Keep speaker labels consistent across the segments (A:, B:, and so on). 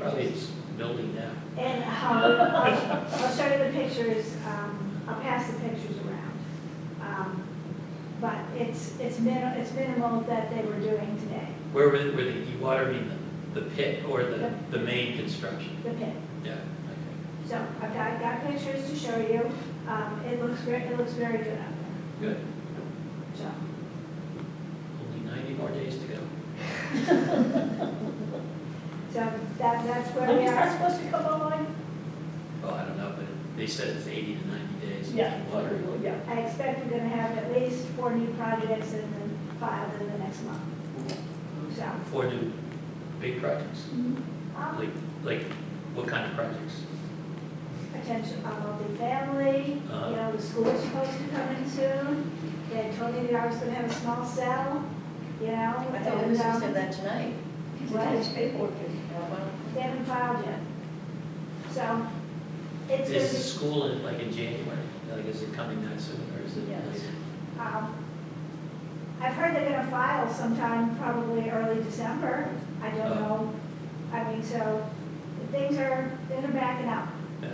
A: Probably
B: pictures.
A: it's building now.
B: And how, I'll, I'll show you the pictures, um, I'll pass the pictures around. Um, But it's, it's minimal, it's minimal that they were doing today,
A: Where were, were they watering the, the pit or the, the main construction?
B: the pit.
A: Yeah, okay,
B: So I've got, got pictures to show you, um, it looks very, it looks very good out there,
A: good.
B: so.
A: Only ninety more days to go.
B: So that, that's where
C: When
B: we
C: is that
B: are.
C: supposed to come online?
A: Well, I don't know, but they said it's eighty to ninety days.
C: Yeah,
A: Water.
C: yeah.
B: I expect we're gonna have at least four new projects in the file in the next month, so.
A: Four new big projects.
B: um,
A: Like, like, what kind of projects?
B: Attention, uh, multi-family, you know, the school's supposed to come in soon. They told me that I was gonna have a small cell, you know,
D: I thought we were supposed
B: and,
D: to have
B: um,
D: that tonight.
B: what?
C: paperwork.
B: they haven't filed yet. So, it's
A: Is the
B: gonna
A: school in, like, in January? Like, is it coming that soon, or is it
D: Yes.
A: later?
B: be, um, I've heard they're gonna file sometime, probably early December. I don't
A: Oh.
B: know. I mean, so, things are, they're backing up.
A: Yeah.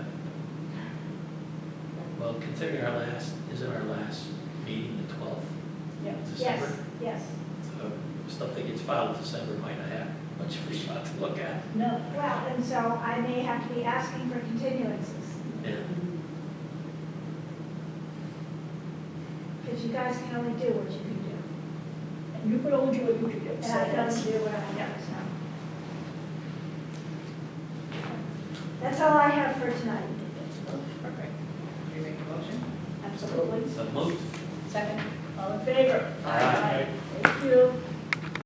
A: Well, considering our last, isn't our last meeting the twelfth?
C: Yeah.
B: Yes, yes.
A: So Stuff that gets filed in December might not have much of a shot to look at.
C: No.
B: Well, and so I may have to be asking for continuances,
A: Yeah.
B: because you guys can only do what you can do.
C: You could only do what you could do.
B: And I can only
C: that's-
B: do what I can, so. That's all I have for tonight.
D: Perfect. Do you make a motion?
C: Absolutely.
A: So moved.
D: Second?
C: All in favor?
A: Aye.
C: Thank you.